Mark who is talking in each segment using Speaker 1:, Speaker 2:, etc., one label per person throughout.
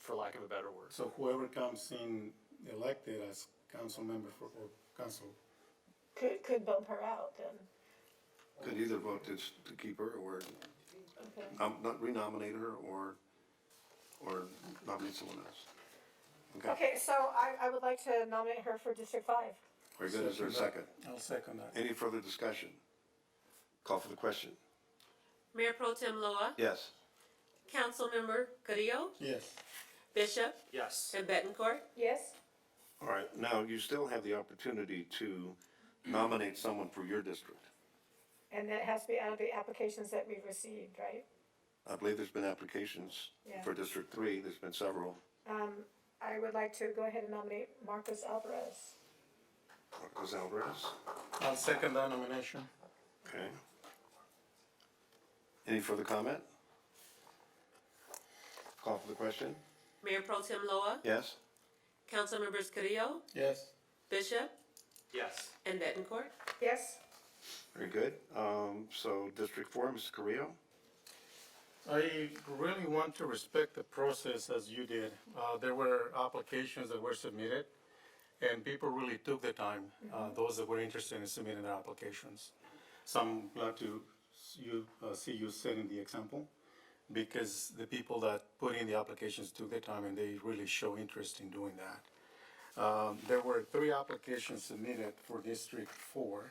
Speaker 1: for lack of a better word.
Speaker 2: So whoever comes in elected as council member for, or council,
Speaker 3: Could, could bump her out then,
Speaker 4: Could either vote to, s- to keep her or
Speaker 3: okay.
Speaker 4: nom- not renominate her or, or nominate someone else. Okay,
Speaker 3: Okay, so I, I would like to nominate her for District Five.
Speaker 4: very good. Is there a second?
Speaker 2: I'll second that.
Speaker 4: Any further discussion? Call for the question.
Speaker 5: Mayor Pro Tem Loa,
Speaker 4: Yes.
Speaker 5: Councilmember Carrillo,
Speaker 2: Yes.
Speaker 5: Bishop,
Speaker 1: Yes.
Speaker 5: and Bettencourt.
Speaker 3: Yes?
Speaker 4: All right, now you still have the opportunity to nominate someone for your district.
Speaker 3: And that has to be out of the applications that we've received, right?
Speaker 4: I believe there's been applications for
Speaker 3: Yeah.
Speaker 4: District Three. There's been several.
Speaker 3: Um, I would like to go ahead and nominate Marcus Alvarez.
Speaker 4: Marcos Alvarez,
Speaker 2: I'll second that nomination.
Speaker 4: okay. Any further comment? Call for the question?
Speaker 5: Mayor Pro Tem Loa,
Speaker 4: Yes?
Speaker 5: Councilmembers Carrillo,
Speaker 2: Yes.
Speaker 5: Bishop,
Speaker 1: Yes.
Speaker 5: and Bettencourt.
Speaker 3: Yes?
Speaker 4: Very good. Um, so District Four, Mr. Carrillo?
Speaker 2: I really want to respect the process as you did. Uh, there were applications that were submitted, and people really took the time, uh, those that were interested in submitting their applications. So I'm glad to s- you, uh, see you setting the example, because the people that put in the applications took their time and they really show interest in doing that. Um, there were three applications submitted for District Four,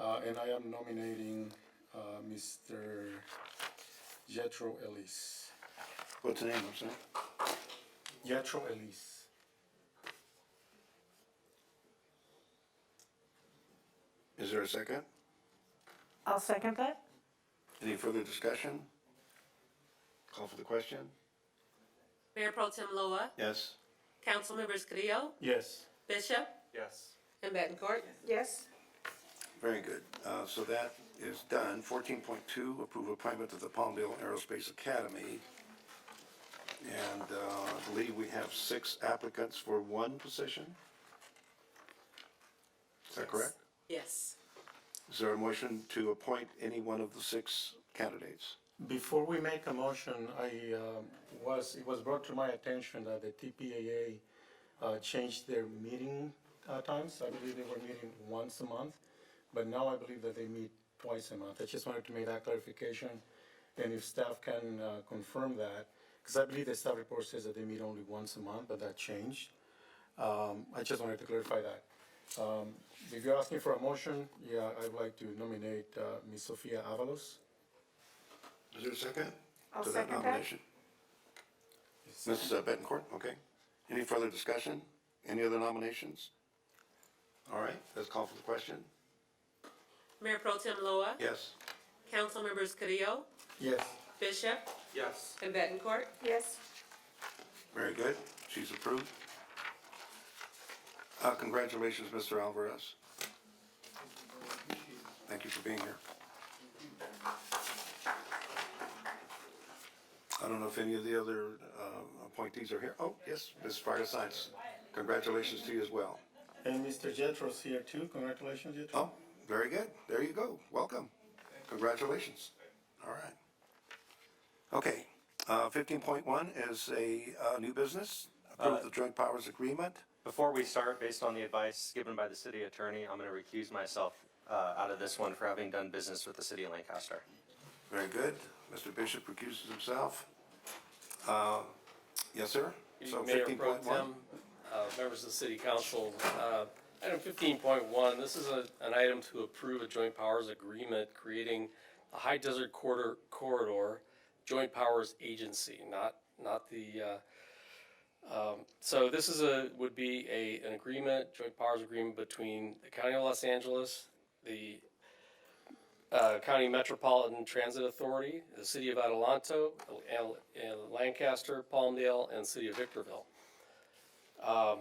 Speaker 2: uh, and I am nominating, uh, Mr. Jethro Ellis.
Speaker 4: What's the name, I'm sorry?
Speaker 2: Jethro Ellis.
Speaker 4: Is there a second?
Speaker 3: I'll second that.
Speaker 4: Any further discussion? Call for the question?
Speaker 5: Mayor Pro Tem Loa,
Speaker 4: Yes?
Speaker 5: Councilmembers Carrillo,
Speaker 2: Yes.
Speaker 5: Bishop,
Speaker 1: Yes.
Speaker 5: and Bettencourt.
Speaker 3: Yes?
Speaker 4: Very good. Uh, so that is done. Fourteen point two, approve appointment to the Palmdale Aerospace Academy. And, uh, I believe we have six applicants for one position? Is that correct?
Speaker 5: Yes.
Speaker 4: Is there a motion to appoint any one of the six candidates?
Speaker 2: Before we make a motion, I um, was, it was brought to my attention that the TPAA uh, changed their meeting uh, times. I believe they were meeting once a month, but now I believe that they meet twice a month. I just wanted to make that clarification. And if staff can uh, confirm that, because I believe the staff report says that they meet only once a month, but that changed. Um, I just wanted to clarify that. Um, If you're asking for a motion, yeah, I'd like to nominate uh, Ms. Sophia Avalos.
Speaker 4: Is there a second?
Speaker 3: I'll
Speaker 4: to
Speaker 3: second that.
Speaker 4: nomination? Mrs. Bettencourt, okay. Any further discussion? Any other nominations? All right, let's call for the question.
Speaker 5: Mayor Pro Tem Loa,
Speaker 4: Yes?
Speaker 5: Councilmembers Carrillo,
Speaker 2: Yes.
Speaker 5: Bishop,
Speaker 1: Yes.
Speaker 5: and Bettencourt.
Speaker 3: Yes?
Speaker 4: Very good. She's approved. Uh, congratulations, Mr. Alvarez. Thank you for being here. I don't know if any of the other, uh, appointees are here. Oh, yes, Ms. Fire Science. Congratulations to you as well.
Speaker 2: And Mr. Jetro's here too. Congratulations, Jetro.
Speaker 4: Oh, very good. There you go. Welcome. Congratulations. All right. Okay, uh, fifteen point one is a, uh, new business. Approve the joint powers agreement.
Speaker 6: Before we start, based on the advice given by the city attorney, I'm going to recuse myself uh, out of this one for having done business with the city of Lancaster.
Speaker 4: Very good. Mr. Bishop recuses himself. Uh, Yes, sir? So
Speaker 7: Mayor Pro
Speaker 4: 15.1.
Speaker 7: Tem, uh, members of the city council. uh, Item fifteen point one, this is a- an item to approve a joint powers agreement creating a high desert corridor, corridor joint powers agency, not, not the, uh, so this is a, would be a, an agreement, joint powers agreement between the county of Los Angeles, the uh, County Metropolitan Transit Authority, the city of Adelanto, Al- Al- Lancaster, Palmdale, and city of Victorville. Um,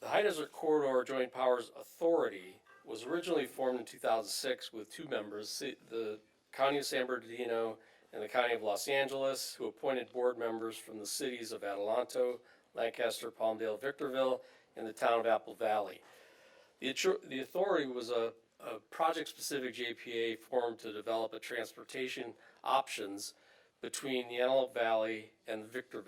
Speaker 7: The High Desert Corridor Joint Powers Authority was originally formed in two thousand six with two members, ci- the County of San Bernardino and the County of Los Angeles, who appointed board members from the cities of Adelanto, Lancaster, Palmdale, Victorville, and the town of Apple Valley. The, attr- the authority was a, a project-specific JPA formed to develop a transportation options between the Antelope Valley and the Victor